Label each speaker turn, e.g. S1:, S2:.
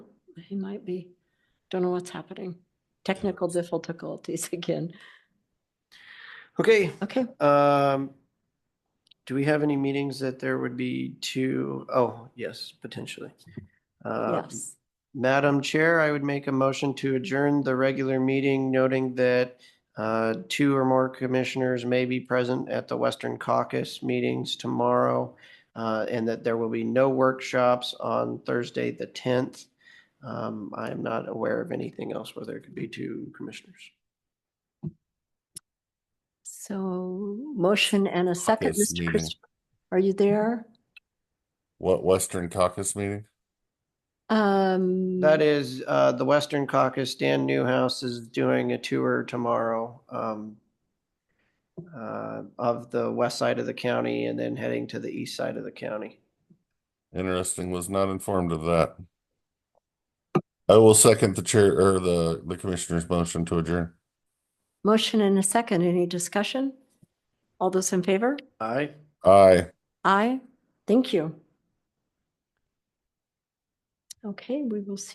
S1: He might be. Don't know what's happening. Technical difficulties again.
S2: Okay,
S1: Okay,
S2: um, do we have any meetings that there would be two? Oh, yes, potentially. Uh,
S1: yes.
S2: Madam Chair, I would make a motion to adjourn the regular meeting noting that uh, two or more commissioners may be present at the Western Caucus meetings tomorrow uh, and that there will be no workshops on Thursday, the 10th. Um, I am not aware of anything else where there could be two commissioners.
S1: So motion and a second,
S3: Caucus
S1: Mr.
S3: meeting.
S1: Chris. Are you there?
S3: What Western Caucus meeting?
S1: Um.
S2: That is, uh, the Western Caucus, Dan Newhouse is doing a tour tomorrow, um, uh, of the west side of the county and then heading to the east side of the county.
S3: Interesting, was not informed of that. I will second the chair or the, the commissioner's motion to adjourn.
S1: Motion and a second. Any discussion? All those in favor?
S2: Aye.
S3: Aye.
S1: Aye. Thank you. Okay, we will see.